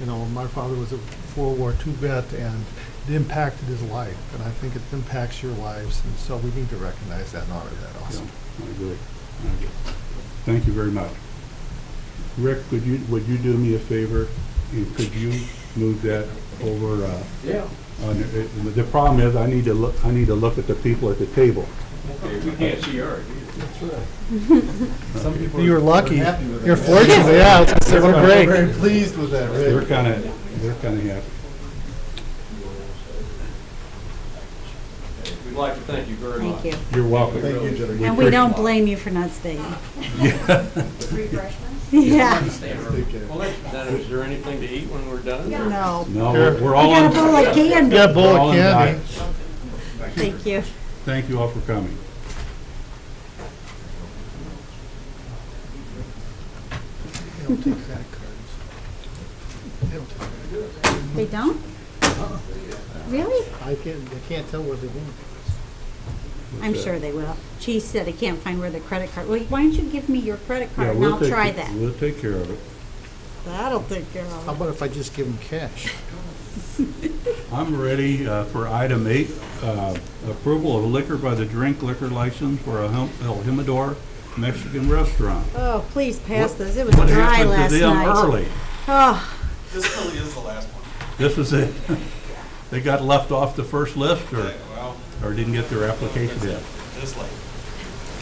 You know, my father was a World War II vet, and it impacted his life, and I think it impacts your lives, and so we need to recognize that and honor that Yeah, also. I agree. I agree. Thank you very much. Rick, could you, would you do me a favor? And Could you move that over? uh, Yeah, on the- uh, The problem is, I need to look, I need to look at the people at the table. okay, we can't see ours either. Uh, You're lucky. happy with it. You're fortunate, yeah. It's a little We're break. very pleased with that, They're Rick. kind of, they're kind of happy. We'd like to thank you very much. Thank you. You're welcome. Thank you, Jennifer. And we don't blame you for not staying. Yeah, Take care. Well, that's- then is there anything to eat when we're done? or- no. No, we're- we're I all got on. a bowl of candy. Yeah, bowl we're all of on candy. diet. Thank you. Thank you all for coming. They don't take credit cards. They don't take credit They don't? Really? cards. I can't, I can't tell where they went. I'm sure they will. She said, I can't find where the credit card, well, why don't you give me your credit Yeah, card and we'll I'll take try it. that. We'll take care of it. That'll take care How Oh. of it. about if I just give them cash? I'm ready uh, for item eight, uh, approval of liquor by the drink liquor license for a Hem- El Jimador Mexican restaurant. Oh, please pass this. It was What dry happened last to them night. early? Oh, This really is the last one. This is it. They got left off the first list or, Well, or didn't get their application in? this late.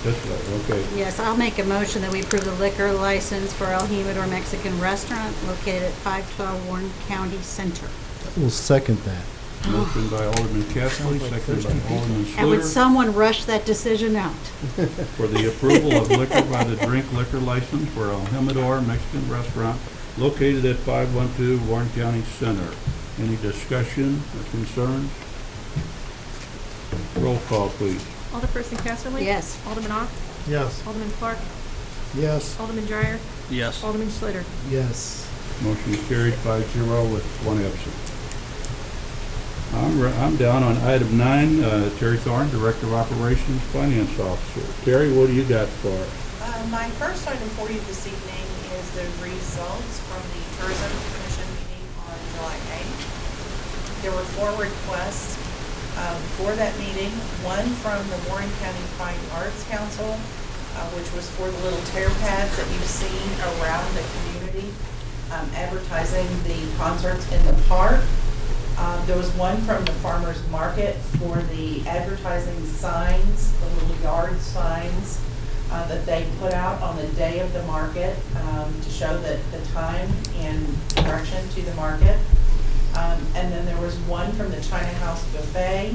This way, okay. yes, I'll make a motion that we approve the liquor license for El Jimador Mexican Restaurant located at 512 Warren County Center. We'll second that. Motion by Alderman Kessley, seconded by Alderman And would Schluter someone rush that decision out? for the approval of liquor by the drink liquor license for El Jimador Mexican Restaurant located at 512 Warren County Center. Any discussion or concerns? Roll call, please. Alderperson Casterly? Yes. Alderman Ock? Yes. Alderman Clark? Yes. Alderman Dreyer? Yes. Alderman Schluter? Yes. Motion is carried five zero with one absent. I'm, re- I'm down on item nine, uh, Terry Thorne, Director of Operations, Finance Officer. Terry, what do you got for us? Uh, My first item for you this evening is the results from the Tourism Commission meeting on July 8th. There were four requests um, for that meeting, one from the Warren County Fine Arts Council, uh, which was for the little tear pads that you've seen around the community um, advertising the concerts in the park. Um, There was one from the farmer's market for the advertising signs, the little yard signs uh, that they put out on the day of the market um, to show that the time and direction to the market. Um, And then there was one from the China House Buffet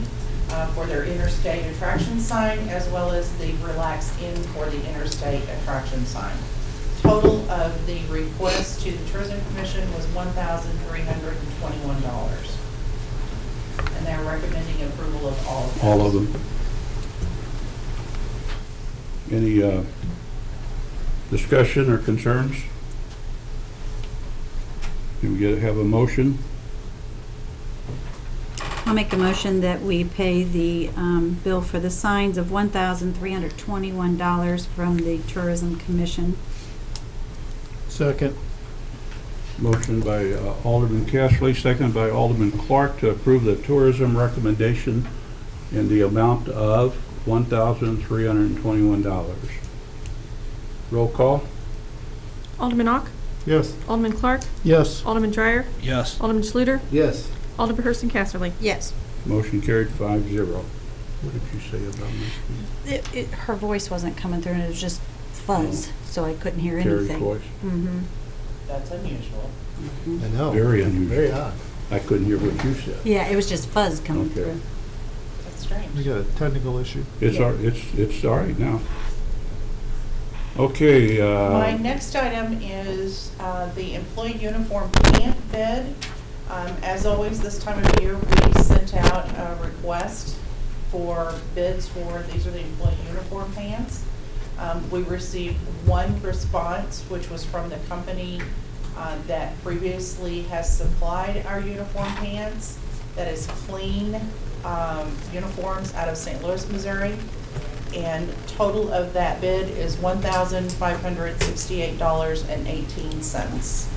uh, for their interstate attraction sign, as well as the Relax Inn for the interstate attraction sign. Total of the request to the Tourism Commission was $1,321. And they're recommending approval of all of those. All of them. Any uh, discussion or concerns? Can we get, have a motion? I'll make a motion that we pay the um, bill for the signs of $1,321 from the Tourism Commission. Second. Motion by uh, Alderman Castley, second by Alderman Clark to approve the tourism recommendation in the amount of $1,321. Roll call? Alderman Ock? Yes. Alderman Clark? Yes. Alderman Dreyer? Yes. Alderman Schluter? Yes. Alderperson Casterly? Yes. Motion carried five zero. What did you say about this? It- it- Her voice wasn't coming through, and it was just fuzz, so I couldn't hear Terry anything. Coyce? Mhm. That's unusual. I know. Very Very unusual. odd. I couldn't hear what you said. Yeah, it was just fuzz coming Okay. through. That's strange. We got a technical issue. It's, all- it's, it's all right now. Okay, My uh, next item is uh, the employee uniform pant bid. Um, As always, this time of year, we sent out a request for bids for, these are the employee uniform pants. Um, We received one response, which was from the company uh, that previously has supplied our uniform pants, that is Clean um, Uniforms out of St. Louis, Missouri. And total of that bid is one thousand five hundred sixty-eight dollars and eighteen cents.